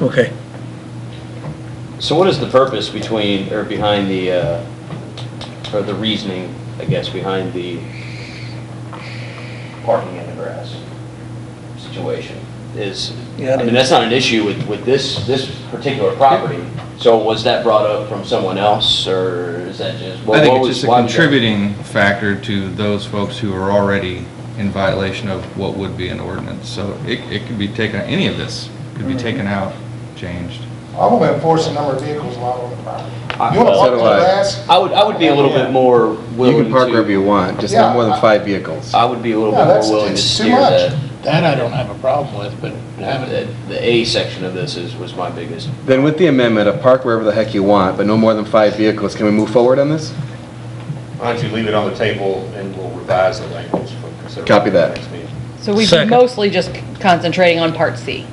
Okay. So what is the purpose between, or behind the, uh, or the reasoning, I guess, behind the parking in the grass situation? Is, Yeah, I it mean, that's not an issue with, with this, this particular property. So was that brought up from someone else, or is that just? what- I what think it's was- just a why was that- contributing factor to those folks who are already in violation of what would be an ordinance. So it, it could be taken, any of this could be Mm-hmm. taken out, changed. I'm gonna enforce the number of vehicles allowed on the property. I- You wanna so park do the I. grass? I would, I would be a little bit more willing to. You can park wherever you want, just Yeah, not more I- than five vehicles. I would be a little Yeah, bit that's- more willing to it's too steer much. that. That I don't have a problem with, but having The the A section of this is, was my biggest Then with the amendment of park wherever the heck you want, but no more than five vehicles, can we move forward on this? Why don't you leave it on the table and we'll revise the language for consideration. Copy that. next meeting. So we've been Second. mostly just concentrating on part C.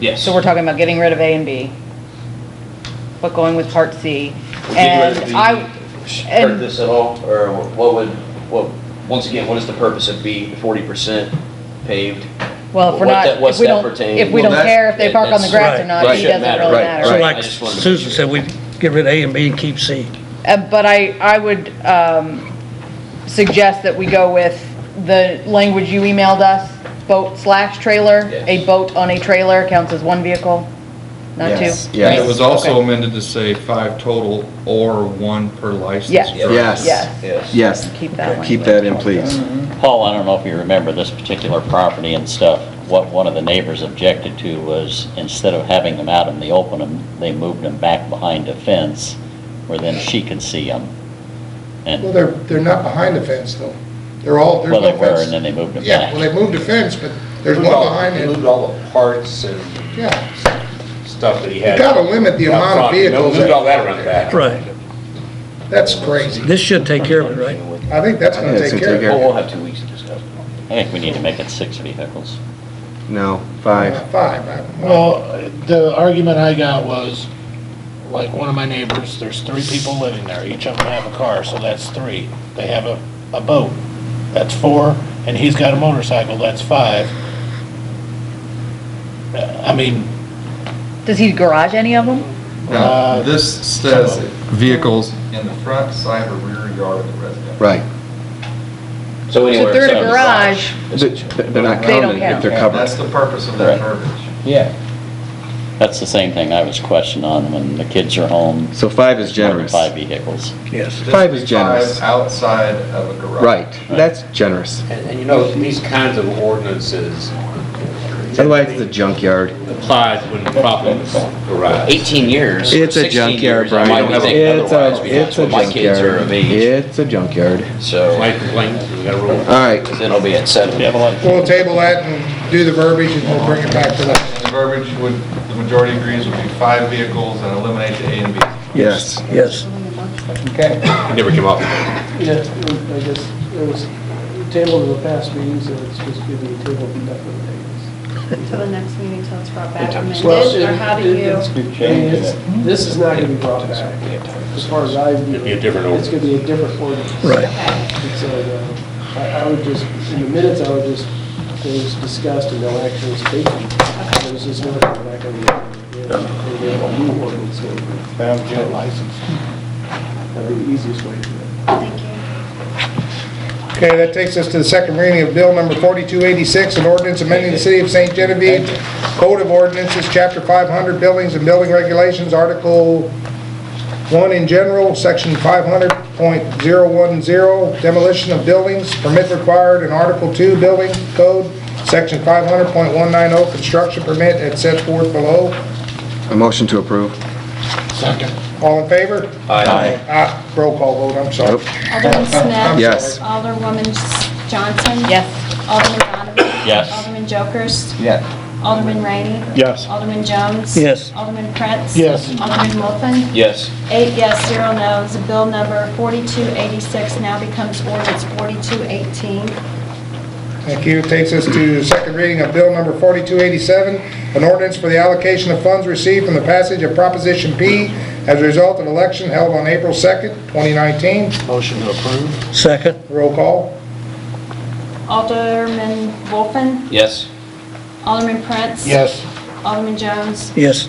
Yes. So we're talking about getting rid of A and B, but going with part C. Did you And I, hurt and- this at all, or what would, what, once again, what is the purpose of B, forty percent paved? well, if we're What not, that- what's if we that don't, pertain- if we Well, don't that's- care if they park on the that's- grass or right, not, right, it shouldn't doesn't matter. really Right, matter. So right. I like just wanted to make Susan sure. said, we get rid of A and B and keep C. Uh, But I, I would um, suggest that we go with the language you emailed us, boat slash trailer. Yes. A boat on a trailer counts as one vehicle, not two. Yes, And it was Yes, also Okay. amended to say five total or one per license. Yeah. for- Yes. Yes, Yes. yes. keep that one. Keep that in, please. Paul, I don't know if you remember this particular property and stuff, what one of the neighbors objected to was instead of having them out in the open, um, they moved them back behind a fence where then she could see um, them. Well, And, they're, they're not behind the fence though. They're all, there's well, no they were, and fence. then they moved them Yeah, well, back. they moved the fence, but there's Moved one all- behind he it. Moved all the parts and Yeah, stuff that he you had. gotta limit the out amount of front. He vehicles. Moved all that- that around the back. Right. That's crazy. This should take care of it, right? I think that's I gonna think take it's care gonna of take it. Well, we'll have two weeks to discuss. I think we need to make it six vehicles. No, five. Five. I- Well, the argument I got was, like, one of my neighbors, there's three people living there, each of them have a car, so that's three. They have a, a boat, that's four, and he's got a motorcycle, that's five. Uh, I mean, Does he garage any of them? Now, Uh, this says vehicles in the front, side, or rear yard of the residence. Right. So So anywhere. if they're in a except the garage, Th- They're not They don't counted if count. they're Yeah, covered. That's the purpose of Right. that verbiage. Yeah. That's the same thing I was questioned on when the kids are home. So five is generous. Five vehicles. Yes. This Five would is be generous. Five outside of a garage. Right, that's generous. And, and you know, these kinds of ordinances Otherwise, it's a junkyard. applies when problems arise. Eighteen years. It's a 16 junkyard, years, I Brian. might be thinking It's otherwise, a, because it's a when my kids are of junkyard. age, It's a junkyard. so, Light complaints, we gotta rule. All right, then I'll be at seven. We'll table that and do the verbiage and we'll bring it back to that. And the verbiage would, the majority agrees would be five vehicles and eliminate the A and B. yes. Yes. Never came up. Yeah, I guess it was tabled in the past meetings, so it's just being tabled indefinitely. Till the next meeting, till it's brought back amended, Well, or how do you? you? This is not gonna be brought back, as far as I view it. It'd be a different It's gonna be a different ordinance. Right. And so, uh, I, I would just, in the minutes, I would just, things discussed and no action was taken. It was just never come back on the, you know, and we have a new ordinance. so found jail license. That'd be the easiest way to do it. Thank you. Okay, that takes us to the second reading of Bill Number 4286, an ordinance amending the City of St. Genevieve Code of Ordinances, Chapter 500, Buildings and Building Regulations, Article 1 in general, Section 500.010, demolition of buildings, permit required, and Article 2, Building Code, Section 500.190, oh, construction permit, as set forth below. A motion to approve. Second. All in favor? Aye. Ah, roll call vote, I'm sorry. Nope. Alderman Smith. Yes. Alderwoman Johnson. Yes. Alderman Donovan. Yes. Alderman Jokers. Yes. Alderman Rainey. Yes. Alderman Jones. Yes. Alderman Prince. Yes. Alderman Wolfen. Yes. Eight yes, zero no's. Bill number 4286 now becomes ordinance 4218. Thank you. Takes us to second reading of Bill Number 4287, an ordinance for the allocation of funds received from the passage of Proposition P as a result of election held on April 2nd, 2019. Motion to approve? Second, Roll call. Alderman Wolfen. Yes. Alderman Prince. Yes. Alderman Jones. yes.